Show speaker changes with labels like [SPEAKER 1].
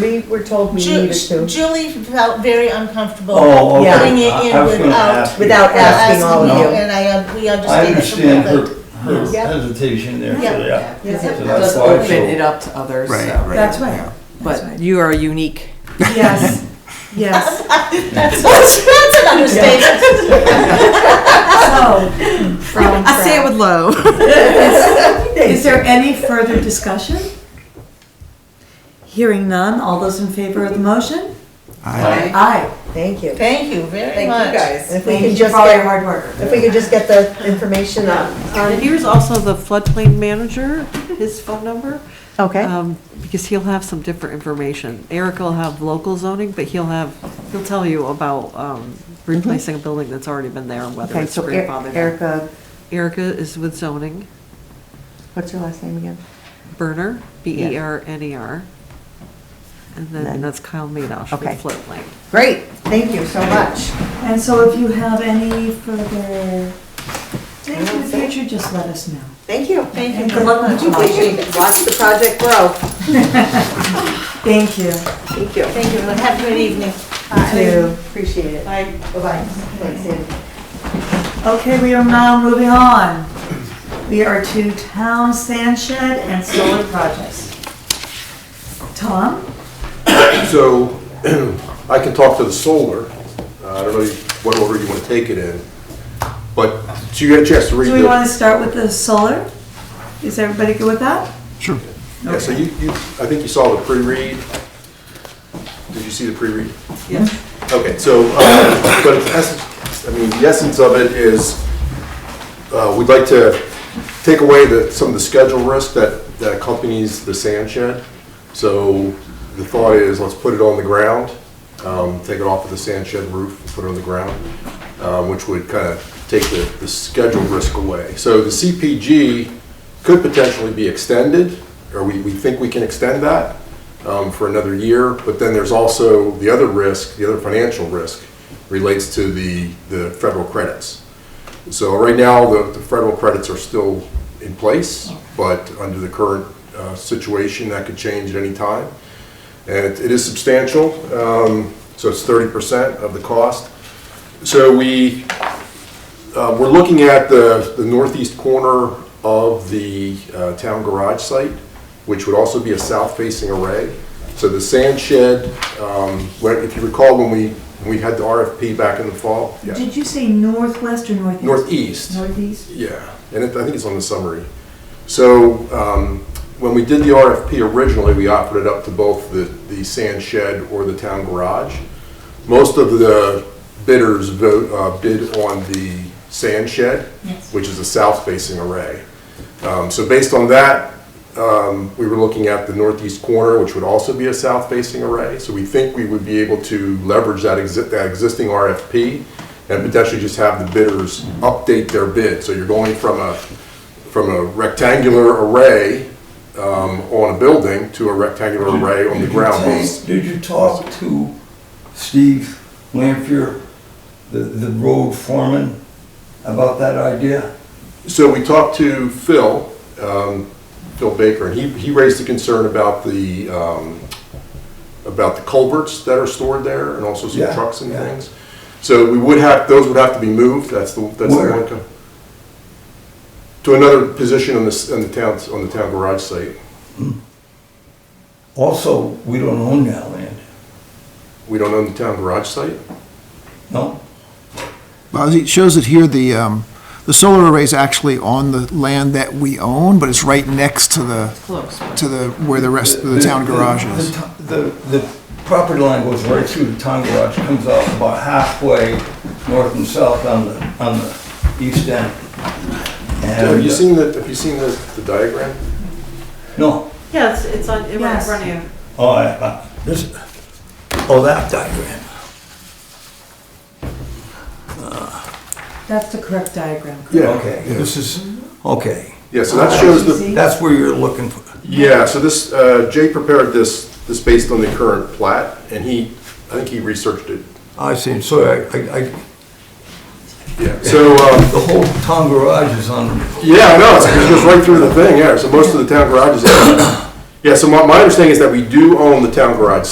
[SPEAKER 1] we were told we
[SPEAKER 2] Ju-
[SPEAKER 1] needed to,
[SPEAKER 2] Julie felt very uncomfortable
[SPEAKER 3] Oh, okay.
[SPEAKER 1] Yeah.
[SPEAKER 2] putting it
[SPEAKER 3] I-
[SPEAKER 2] in
[SPEAKER 3] I was gonna
[SPEAKER 2] without. uh,
[SPEAKER 3] ask you.
[SPEAKER 1] without asking
[SPEAKER 2] asking
[SPEAKER 1] all
[SPEAKER 3] No.
[SPEAKER 1] of you.
[SPEAKER 2] And I, uh, we
[SPEAKER 3] I
[SPEAKER 2] understand it
[SPEAKER 3] understand
[SPEAKER 2] completely.
[SPEAKER 3] her, her
[SPEAKER 1] Yeah.
[SPEAKER 3] hesitation there,
[SPEAKER 2] Yeah.
[SPEAKER 3] so yeah.
[SPEAKER 1] Yeah.
[SPEAKER 3] So that's
[SPEAKER 4] Does
[SPEAKER 3] why
[SPEAKER 4] open
[SPEAKER 3] so-
[SPEAKER 4] it up to others,
[SPEAKER 5] Right,
[SPEAKER 4] so.
[SPEAKER 5] right.
[SPEAKER 1] That's right,
[SPEAKER 4] But you are unique.
[SPEAKER 1] yes, yes.
[SPEAKER 2] That's, that's an understatement.
[SPEAKER 1] Oh,
[SPEAKER 6] So, from
[SPEAKER 4] I say it with love.
[SPEAKER 6] Is there any further discussion? Hearing none, all those in favor of the motion?
[SPEAKER 5] I-
[SPEAKER 6] Aye.
[SPEAKER 1] Thank you.
[SPEAKER 2] Thank you very
[SPEAKER 4] Thank you
[SPEAKER 2] much.
[SPEAKER 4] guys.
[SPEAKER 1] If we can
[SPEAKER 6] Thank you
[SPEAKER 1] just
[SPEAKER 6] for all your
[SPEAKER 1] get,
[SPEAKER 6] hard work.
[SPEAKER 1] if we could just get the information on,
[SPEAKER 7] And Uh, here's also the floodplain manager, his phone number,
[SPEAKER 1] okay,
[SPEAKER 7] um, because he'll have some different information. Eric will have local zoning, but he'll have, he'll tell you about um, replacing a building that's already been there and whether
[SPEAKER 8] Mm-hmm. Okay,
[SPEAKER 7] it's
[SPEAKER 8] so E-
[SPEAKER 7] grandfathered. in.
[SPEAKER 8] Erica,
[SPEAKER 7] Erica is with zoning,
[SPEAKER 8] what's your last name again?
[SPEAKER 7] Berner, E B-E-R-N-E-R. And
[SPEAKER 8] Then-
[SPEAKER 7] then that's Kyle Madoff
[SPEAKER 8] Okay.
[SPEAKER 7] with floodplain.
[SPEAKER 8] Great.
[SPEAKER 1] thank you so much.
[SPEAKER 6] And so if you have any further things in the future, just let us know.
[SPEAKER 1] Thank you.
[SPEAKER 2] Thank you
[SPEAKER 6] And
[SPEAKER 2] very
[SPEAKER 6] good luck with the
[SPEAKER 1] Appreciate
[SPEAKER 6] motion.
[SPEAKER 1] it. Watch the project grow.
[SPEAKER 6] Thank you.
[SPEAKER 1] Thank you.
[SPEAKER 2] Thank you, have a good evening.
[SPEAKER 1] You too. Appreciate it.
[SPEAKER 2] Bye.
[SPEAKER 1] Bye-bye. Thanks, Andy.
[SPEAKER 6] Okay, we are now moving on. We are to town sand shed and solar projects. Tom?
[SPEAKER 9] So I can talk to the solar. Uh, I don't know what order you want to take it in, but so you had a chance to read
[SPEAKER 6] Do we want
[SPEAKER 9] the...
[SPEAKER 6] to start with the solar? Is everybody good with that?
[SPEAKER 5] Sure.
[SPEAKER 9] Yeah, so you, you, I think you saw the pre-read. Did you see the pre-read? Yes. Okay, so, uh, but the essence, I mean, the essence of it is, uh, we'd like to take away the, some of the schedule risk that, that accompanies the sand shed. So the thought is, let's put it on the ground, um, take it off of the sand shed roof and put it on the ground, um, which would kind of take the, the schedule risk away. So the CPG could potentially be extended, or we, we think we can extend that um, for another year. But then there's also the other risk, the other financial risk relates to the, the federal credits. So right now, the, the federal credits are still in place, but under the current uh, situation, that could change at any time. And it it is substantial, um, so it's thirty percent of the cost. So we, uh, we're looking at the the northeast corner of the uh, town garage site, which would also be a south-facing array. So the sand shed, um, where- if you recall, when we, we had the RFP back in the fall, yeah.
[SPEAKER 6] Did you say northwest or northeast?
[SPEAKER 9] Northeast.
[SPEAKER 6] Northeast?
[SPEAKER 9] Yeah, and it, I think it's on the summary. So, um, when we did the RFP originally, we offered it up to both the, the sand shed or the town garage. Most of the bidders vote, uh, bid on the sand shed, which is a south-facing array. Um, so based on that, um, we were looking at the northeast corner, which would also be a south-facing array. So we think we would be able to leverage that exi- that existing RFP and potentially just have the bidders update their bid. So you're going from a, from a rectangular array, um, on a building to a rectangular array on
[SPEAKER 3] Did
[SPEAKER 9] the
[SPEAKER 3] you
[SPEAKER 9] ground.
[SPEAKER 3] ta- Did you talk to Steve Lampier, the, the road foreman, about that idea?
[SPEAKER 9] So we talked to Phil, um, Phil Baker, and he, he raised a concern about the, um, about the culverts that are stored there and also some
[SPEAKER 3] Yeah,
[SPEAKER 9] trucks and
[SPEAKER 3] yeah.
[SPEAKER 9] things. So we would have, those would have to be moved, that's the, that's the
[SPEAKER 3] Where?
[SPEAKER 9] one. co- To another position on the, s- on the town, on the town garage site.
[SPEAKER 3] Also, we don't own that land,
[SPEAKER 9] We don't own the town garage site?
[SPEAKER 3] no?
[SPEAKER 10] Well, it shows it here, the, um, the solar array's actually on the land that we own, but it's right next to the,
[SPEAKER 4] Close.
[SPEAKER 10] to the, where the rest of the town garage is.
[SPEAKER 3] the to- The, the property line goes right through the town garage, comes out about halfway north and south on the, on the east end. And- uh,
[SPEAKER 9] Have you seen the, have you seen the, the diagram?
[SPEAKER 3] No,
[SPEAKER 7] Yeah, it's, it's on, in
[SPEAKER 6] Yes.
[SPEAKER 7] front of you.
[SPEAKER 3] oh, I- I- this, oh, that diagram.
[SPEAKER 6] That's the correct diagram. correct?
[SPEAKER 3] Okay, this is, okay,
[SPEAKER 9] Yeah, so that shows the,
[SPEAKER 3] that's where you're looking for.
[SPEAKER 9] Yeah, so this, uh, Jay prepared this, this based on the current plat, and he, I think he researched it.
[SPEAKER 3] I see, so I, I, I-
[SPEAKER 9] Yeah. So, um,
[SPEAKER 3] the whole town garage is on,
[SPEAKER 9] yeah, I know, it's- it goes right through the thing, yeah, so most of the town garages. Yeah, so my, my understanding is that we do own the town garage